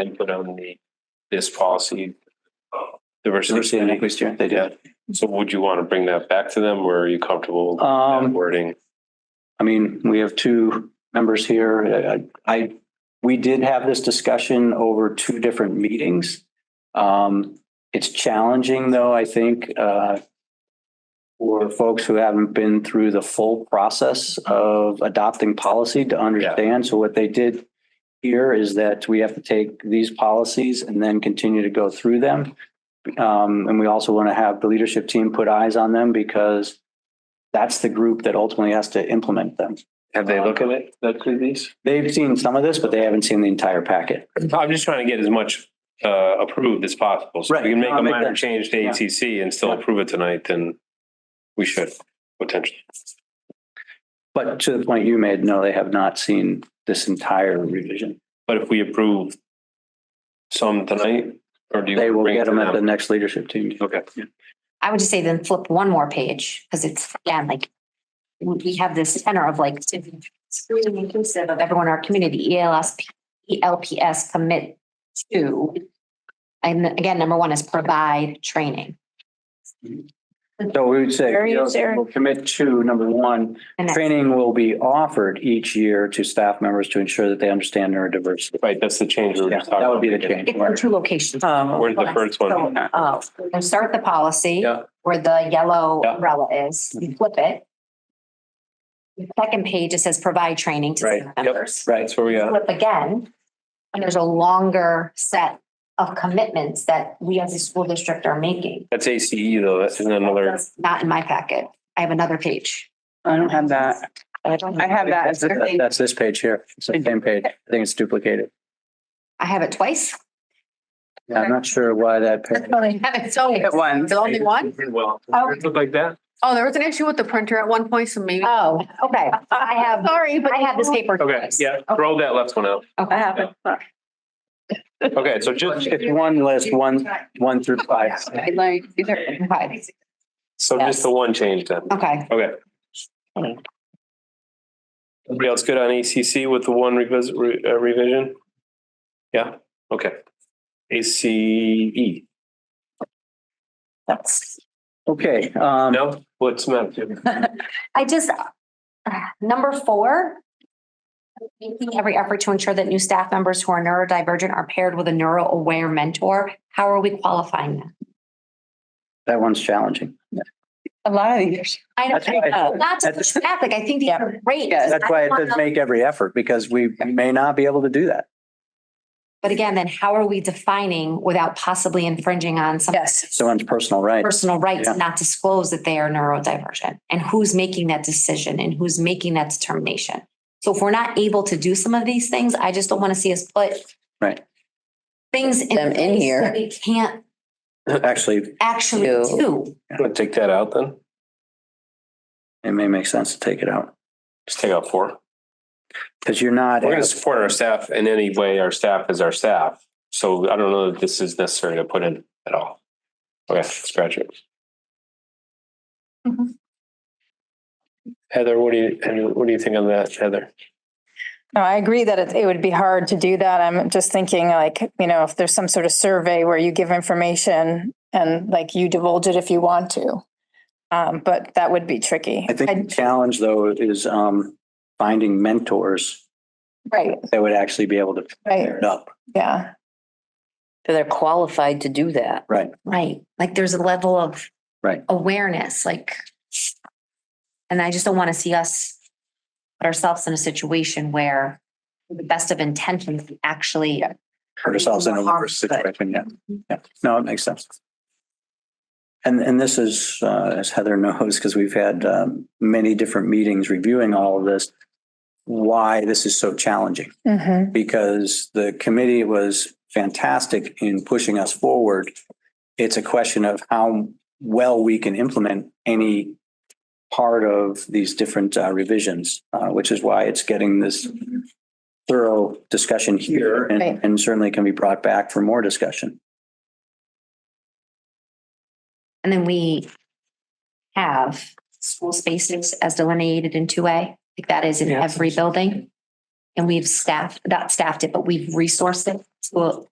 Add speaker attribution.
Speaker 1: input on the, this policy. uh, Diversity
Speaker 2: Diversity and
Speaker 1: and
Speaker 2: equity steering, they did.
Speaker 1: So would you want to bring that back to them or are you comfortable with that
Speaker 2: Um,
Speaker 1: wording?
Speaker 2: I mean, we have two members here. I, I- we did have this discussion over two different meetings. Um, it's challenging though, I think, uh, for folks who haven't been through the full process of adopting policy to understand. So what they did here is that we have to take these policies and then continue to go through them. Um, and we also want to have the leadership team put eyes on them because that's the group that ultimately has to implement them.
Speaker 1: Have they looked at it, that through these?
Speaker 2: They've seen some of this, but they haven't seen the entire packet.
Speaker 1: I'm just trying to get as much uh approved as possible. So if we
Speaker 2: Right.
Speaker 1: can make
Speaker 2: No,
Speaker 1: a
Speaker 2: make
Speaker 1: minor
Speaker 2: that-
Speaker 1: change to
Speaker 2: yeah.
Speaker 1: ATC and still
Speaker 2: Yeah.
Speaker 1: approve it tonight, then we should potentially.
Speaker 2: But to the point you made, no, they have not seen this entire revision.
Speaker 1: But if we approve some tonight, or do you?
Speaker 2: They will
Speaker 1: bring it
Speaker 2: get
Speaker 1: to
Speaker 2: them at the next leadership team.
Speaker 1: Okay.
Speaker 3: I would just say then flip one more page because it's, again, like we we have this tenor of like to be truly inclusive of everyone in our community, E ELS, E ELPS commit to. And again, number one is provide training.
Speaker 2: So we would say,
Speaker 4: Where are you,
Speaker 2: you know,
Speaker 4: Sarah?
Speaker 2: we'll commit to number one,
Speaker 3: And that's-
Speaker 2: training will be offered each year to staff members to ensure that they understand neurodiversity.
Speaker 1: Right, that's the change we were
Speaker 2: Yeah,
Speaker 1: just talking.
Speaker 2: That would be the
Speaker 1: about.
Speaker 2: change.
Speaker 3: it's in two locations.
Speaker 2: Um,
Speaker 1: Where's the first one?
Speaker 4: So,
Speaker 3: Oh, you start the policy
Speaker 2: Yeah.
Speaker 3: where the yellow
Speaker 2: Yeah. Mm-hmm.
Speaker 3: umbrella is, you flip it. The Second page, it says provide training to
Speaker 2: Right.
Speaker 3: staff members.
Speaker 2: Right.
Speaker 1: That's where we uh, are.
Speaker 3: flip again, and there's a longer set of commitments that we as a school district are making.
Speaker 1: That's ACE though. That's another.
Speaker 3: That's Not in my packet. I have another page.
Speaker 4: I don't have that.
Speaker 3: I don't,
Speaker 4: I have that
Speaker 2: That's
Speaker 4: as their thing.
Speaker 2: that's this page here. It's the same page. I think it's duplicated.
Speaker 3: I have it twice.
Speaker 2: I'm not sure why that.
Speaker 4: That's
Speaker 2: page-
Speaker 4: funny.
Speaker 3: I have it so.
Speaker 4: At once.
Speaker 3: The only one?
Speaker 1: Well,
Speaker 3: Oh.
Speaker 1: look like that.
Speaker 5: Oh, there was an issue with the printer at one point, so maybe.
Speaker 3: Oh, okay. I have,
Speaker 5: Sorry, but
Speaker 3: I have this paper.
Speaker 1: Okay,
Speaker 3: twice.
Speaker 1: yeah, throw that left one out.
Speaker 4: I
Speaker 3: Okay.
Speaker 4: have it.
Speaker 1: Okay, so just,
Speaker 2: It's one list, one, one through five.
Speaker 4: I Like, these are.
Speaker 3: Okay.
Speaker 1: so just the one change then.
Speaker 3: Okay.
Speaker 1: Okay.
Speaker 3: Okay.
Speaker 1: Everybody else good on ACC with the one revis- re- uh, revision? Yeah, okay. E ACE,
Speaker 3: That's.
Speaker 2: Okay, um,
Speaker 1: no, what's the matter?
Speaker 3: I just, uh, number four. Making every effort to ensure that new staff members who are neurodivergent are paired with a neuro-aware mentor. How are we qualifying that?
Speaker 2: that one's challenging.
Speaker 4: A lot of these.
Speaker 3: I
Speaker 2: That's why I
Speaker 3: know,
Speaker 2: said-
Speaker 3: not to
Speaker 2: that's-
Speaker 3: push back, like, I think these are great.
Speaker 4: Yeah,
Speaker 2: That's why it does make every effort because we may not be able to do that.
Speaker 3: But again, then how are we defining without possibly infringing on some
Speaker 4: Yes.
Speaker 2: Someone's personal right.
Speaker 3: personal right
Speaker 2: Yeah.
Speaker 3: to not disclose that they are neurodivergent? And who's making that decision and who's making that determination? So if we're not able to do some of these things, I just don't want to see us put
Speaker 2: Right.
Speaker 3: things in
Speaker 6: Them in
Speaker 3: place
Speaker 6: here.
Speaker 3: that We can't
Speaker 2: Actually,
Speaker 3: actually
Speaker 6: Ew.
Speaker 3: do.
Speaker 1: Wanna Take that out then?
Speaker 2: it may make sense to take it out
Speaker 1: Just take out four.
Speaker 2: because you're not.
Speaker 1: We're gonna support our staff in any way. Our staff is our staff. So I don't know that this is necessary to put in at all. Okay, scratch it.
Speaker 3: Mhm.
Speaker 1: Heather, what do you, what do you think on that, Heather?
Speaker 4: No, I agree that it, it would be hard to do that. I'm just thinking like, you know, if there's some sort of survey where you give information and like you divulge it if you want to. Um, but that would be tricky.
Speaker 2: I think the challenge though is um finding mentors
Speaker 4: Right,
Speaker 2: that would actually be able to pair
Speaker 4: right,
Speaker 2: it up.
Speaker 4: yeah.
Speaker 6: So They're qualified to do that.
Speaker 3: Right, like there's a level of.
Speaker 2: Right.
Speaker 3: Awareness, like. And I just don't want to see us put ourselves in a situation where with the best of intentions we actually.
Speaker 2: Put ourselves in a worse situation. Yeah. Yeah. No, it makes sense. And and this is, uh, as Heather knows, because we've had um many different meetings reviewing all of this. Why this is so challenging.
Speaker 4: Mm-hmm.
Speaker 2: because the committee was fantastic in pushing us forward. It's a question of how well we can implement any part of these different uh, revisions, uh, which is why it's getting this thorough discussion here and,
Speaker 4: Right.
Speaker 2: and certainly can be brought back for more discussion.
Speaker 3: And then we have school spaces as delineated in two A, like that is in every building. And we've staffed, not staffed it, but we've resourced it to